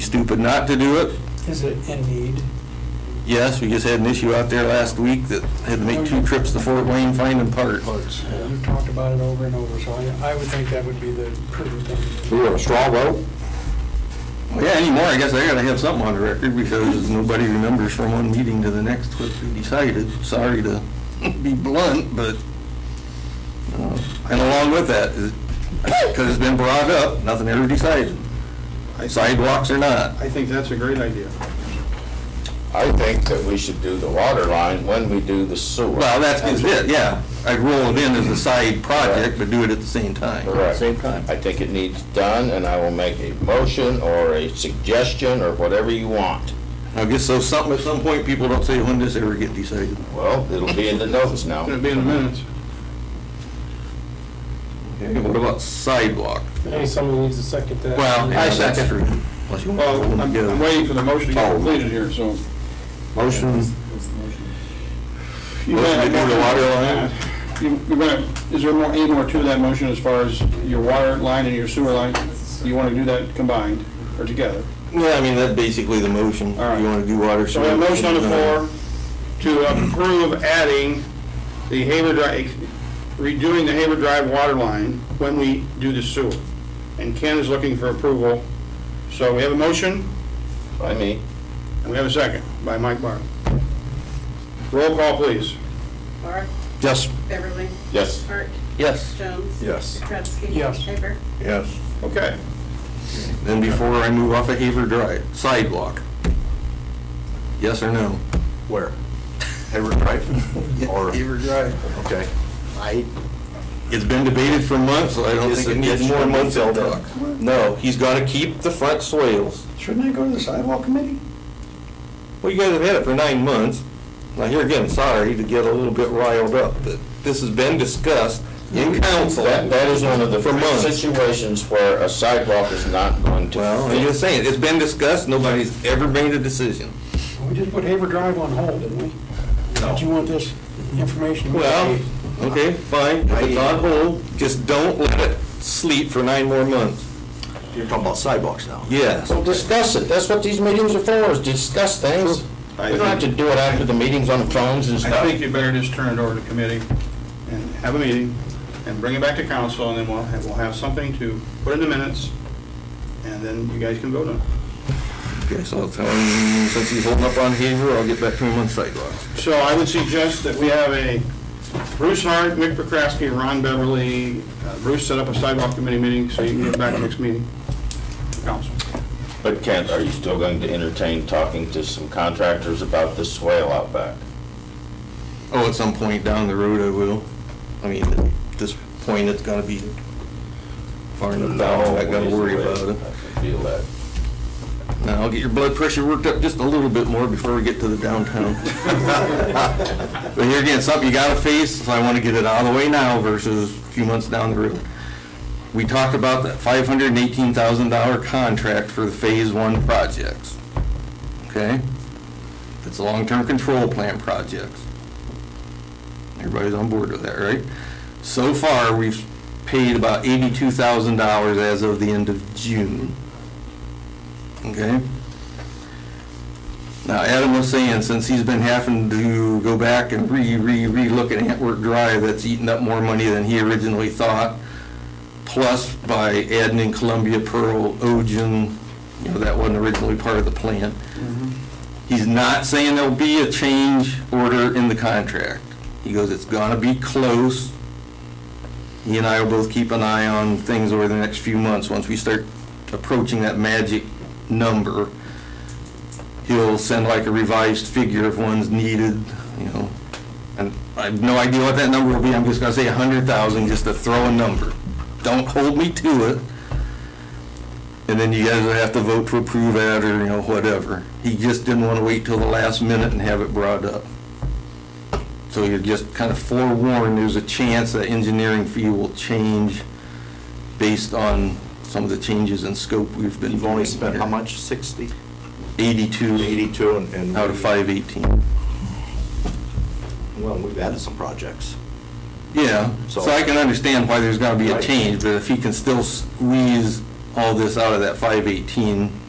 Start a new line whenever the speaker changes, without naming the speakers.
stupid not to do it.
Is it in need?
Yes, we just had an issue out there last week that had to make two trips to Fort Wayne finding parts.
Parts. You've talked about it over and over, so I, I would think that would be the prudent thing.
We want a straw vote?
Well, Yeah, anymore, I guess I gotta have something on the record because nobody remembers from one meeting to the next what we decided. Sorry to be blunt, but, uh, and along with that, because it's been brought up, nothing ever decided. Sidewalks or not.
I think that's a great idea.
I think that we should do the water line when we do the sewer.
Well, that's is it, yeah. I'd roll it in as a side project, but do it at the same time.
Correct.
Same time.
I think it needs done, and I will make a motion or a suggestion or whatever you want.
I guess so something, at some point, people don't say when this ever get decided.
Well, it'll be in the notes now.
It'll be in the minutes.
Okay, What about sidewalk?
Hey, somebody needs to second that.
Well, Oh,
I
yeah, that's
second.
true. Unless you
Well,
want
I'm
to
I'm
go.
waiting for the motion to get
Oh.
completed here, so.
Motion.
You
Motion to
want-
do the water line?
You you want, is there more, any more to that motion as far as your water line and your sewer line? You want to do that combined or together?
Yeah, I mean, that's basically the motion. You
All right.
want to do water,
So we have a
sewer,
motion on the
uh,
floor to approve adding the Haver Drive, redoing the Haver Drive water line when we do the sewer. And Ken is looking for approval. So we have a motion,
By me.
and we have a second by Mike Barr. Roll call, please.
Laura,
Yes.
Beverly,
Yes.
Hart,
Yes.
Jones.
Yes.
Kratzky.
Yes.
Haver.
Yes.
Okay.
Then before I move off of Haver Drive, sidewalk. Yes or no?
Where? Hayward Drive? Or,
Drive.
okay. I,
It's been debated for months, so I don't think it needs more months of talk. No, he's got to keep the front swales.
shouldn't I go to the sidewalk committee?
Well, you guys have had it for nine months. Now, here again, sorry to get a little bit riled up, but this has been discussed in council.
That, that is one of the
For months.
situations where a sidewalk is not going to.
Well, I'm just saying, it's been discussed, nobody's ever made a decision.
We just put Haver Drive on hold, didn't we? No. Did you want this information?
Well, okay, fine, if it's on hold, just don't let it sleep for nine more months.
You're talking about sidewalks now.
Yes.
Well, discuss it. That's what these meetings are for, is discuss things.
I
We don't have to do it after the meetings on the phones and
I
stuff.
think you better just turn it over to committee and have a meeting and bring it back to council, and then we'll, have- we'll have something to put in the minutes, and then you guys can vote on it.
Okay, so I'll tell him, since he's holding up on Haver, I'll get back to him on sidewalks.
So I would suggest that we have a Bruce Hart, Mick Prokraski, Ron Beverly. Uh, Bruce set up a sidewalk committee meeting, so you can get back next meeting, council.
But Kent, are you still going to entertain talking to some contractors about this swale out back?
Oh, at some point down the road, I will. I mean, at this point, it's gotta be far enough down, I gotta worry about it.
I feel that.
Now, I'll get your blood pressure worked up just a little bit more before we get to the downtown. But here again, something you gotta face, so I wanna get it out of the way now versus a few months down the road. We talked about that five hundred and eighteen thousand dollar contract for the phase one projects. Okay? It's a long-term control plan projects. Everybody's on board with that, right? So far, we've paid about eighty-two thousand dollars as of the end of June. Okay? Now, Adam was saying, since he's been having to go back and re, re, re-look at Antwerp Drive, that's eaten up more money than he originally thought. Plus, by adding in Columbia, Pearl, Ogen, you know, that wasn't originally part of the plan. He's not saying there'll be a change order in the contract. He goes, it's gonna be close. He and I will both keep an eye on things over the next few months. Once we start approaching that magic number, he'll send like a revised figure if one's needed, you know. And I have no idea what that number will be. I'm just gonna say a hundred thousand, just to throw a number. Don't hold me to it. And then you guys will have to vote to approve that or, you know, whatever. He just didn't want to wait till the last minute and have it brought up. So you're just kind of forewarned, there's a chance that engineering fee will change based on some of the changes in scope we've been.
You've only
doing
spent
here.
how much, 60?
Eighty-two.
82 and- and.
Out of five eighteen.
Well, we've added some projects.
Yeah, so I can understand why there's gotta be a
Right.
change, but if he can still squeeze all this out of that five eighteen,